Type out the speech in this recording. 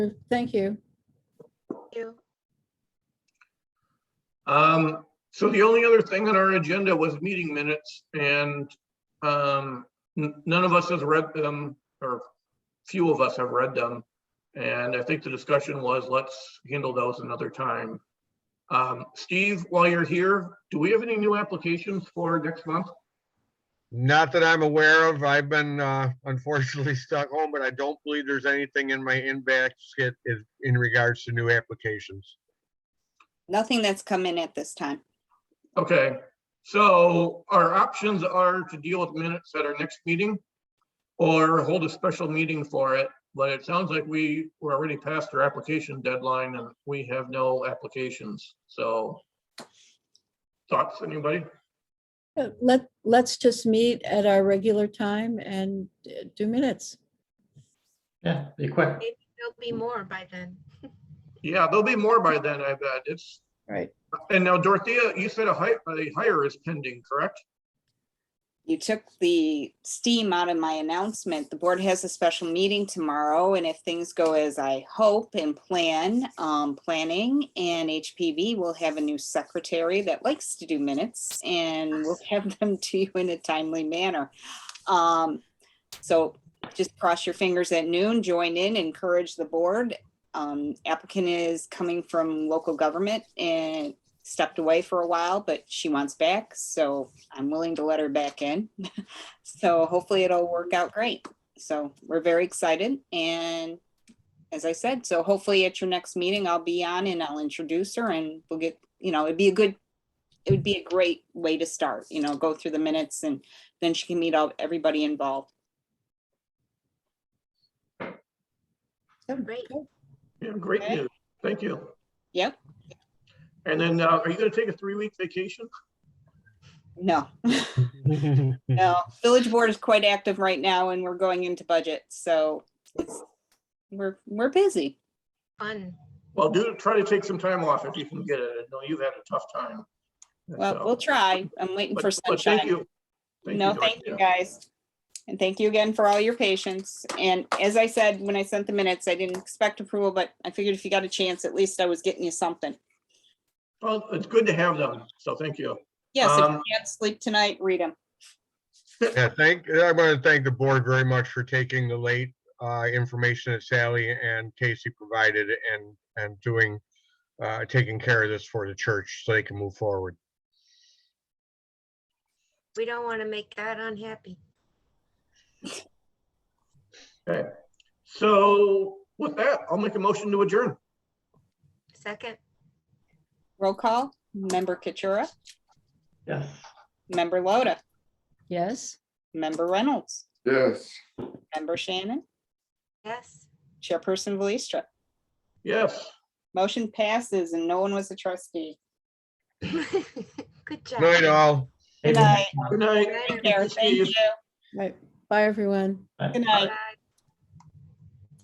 Thank you. you. Um, so the only other thing on our agenda was meeting minutes and, um, n- none of us has read them, or few of us have read them. And I think the discussion was, let's handle those another time. Um, Steve, while you're here, do we have any new applications for next month? Not that I'm aware of. I've been uh, unfortunately stuck home, but I don't believe there's anything in my inbox that is in regards to new applications. Nothing that's come in at this time. Okay, so our options are to deal with minutes at our next meeting or hold a special meeting for it, but it sounds like we were already past our application deadline and we have no applications, so. Thoughts, anybody? Uh, Let, let's just meet at our regular time and uh, do minutes. Yeah, be quick. There'll be more by then. Yeah, there'll be more by then, I bet. It's, Right. and now Dorothea, you said a hire, a hire is pending, correct? You took the steam out of my announcement. The board has a special meeting tomorrow, and if things go as I hope and plan, um, planning and HPV will have a new secretary that likes to do minutes and will have them to you in a timely manner. Um, so just cross your fingers at noon, join in, encourage the board. Um, applicant is coming from local government and stepped away for a while, but she wants back, so I'm willing to let her back in. So hopefully it'll work out great. So we're very excited and as I said, so hopefully at your next meeting, I'll be on and I'll introduce her and we'll get, you know, it'd be a good, it would be a great way to start, you know, go through the minutes and then she can meet all, everybody involved. Great. Yeah, great Okay. news. Thank you. Yep, And then, uh, are you gonna take a three-week vacation? no. No, village board is quite active right now and we're going into budget, so it's, we're, we're busy. Fun. Well, do, try to take some time off if you can get it. I know you've had a tough time. Well, So- we'll try. I'm waiting But- for but thank sunshine. you. No, thank you, Dorothea. guys. And thank you again for all your patience. And as I said, when I sent the minutes, I didn't expect approval, but I figured if you got a chance, at least I was getting you something. Well, it's good to have them, so thank you. Yes, if Um, you can't sleep tonight, read them. Yeah, thank, I want to thank the board very much for taking the late uh, information that Sally and Casey provided and, and doing, uh, taking care of this for the church so they can move forward. We don't want to make God unhappy. So with that, I'll make a motion to adjourn. Second, Roll call, member Katura, Yes. member Loda, Yes? member Reynolds, Yes. member Shannon, yes. chairperson Volistra. Yes, Motion passes and no one was a trustee. Good job. Night all. Good night. good night. Good night, Take care. Thank Steve. you. Right. Bye, everyone. Bye. Good night. Bye.